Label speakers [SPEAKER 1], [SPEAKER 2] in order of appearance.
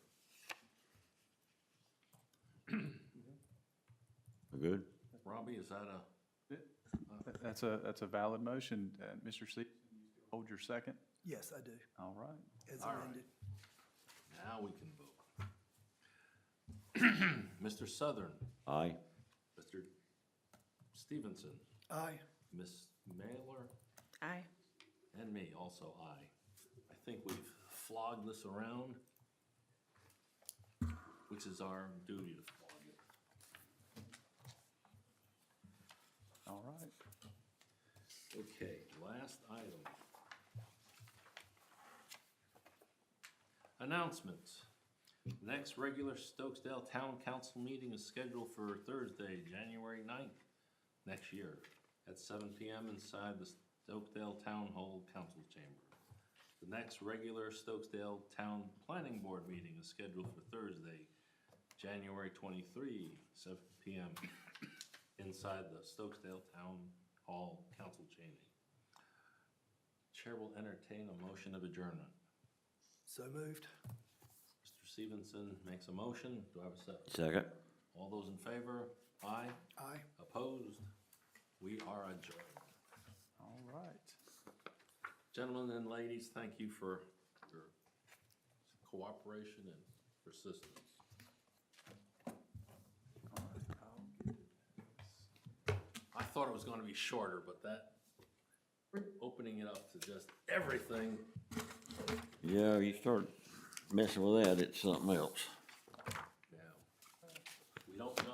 [SPEAKER 1] good.
[SPEAKER 2] Robbie, is that a?
[SPEAKER 3] That's a, that's a valid motion. Uh, Mr. Stevenson, you still hold your second?
[SPEAKER 4] Yes, I do,
[SPEAKER 3] All right.
[SPEAKER 4] as
[SPEAKER 2] All right.
[SPEAKER 4] amended.
[SPEAKER 2] Now we can vote. Mr. Southern,
[SPEAKER 1] Aye.
[SPEAKER 2] Mr. Stevenson,
[SPEAKER 4] Aye.
[SPEAKER 2] Ms. Mailer,
[SPEAKER 5] Aye.
[SPEAKER 2] and me, also aye. I think we've flogged this around, which is our duty to flog it.
[SPEAKER 3] All right.
[SPEAKER 2] Okay, last item. Announcements. Next regular Stokesdale Town Council meeting is scheduled for Thursday, January 9th, next year, at seven PM inside the Stokesdale Town Hall Council Chamber. The next regular Stokesdale Town Planning Board meeting is scheduled for Thursday, January 23, 7 PM, inside the Stokesdale Town Hall Council Chamber. Chair will entertain a motion of adjournment.
[SPEAKER 4] So moved.
[SPEAKER 2] Mr. Stevenson makes a motion. Do I have a second?
[SPEAKER 1] Second.
[SPEAKER 2] All those in favor? Aye.
[SPEAKER 4] Aye.
[SPEAKER 2] Opposed? We are adjourned.
[SPEAKER 3] All right.
[SPEAKER 2] Gentlemen and ladies, thank you for your cooperation and persistence. I thought it was gonna be shorter, but that, opening it up to just everything
[SPEAKER 1] Yeah, you start messing with that, it's something else.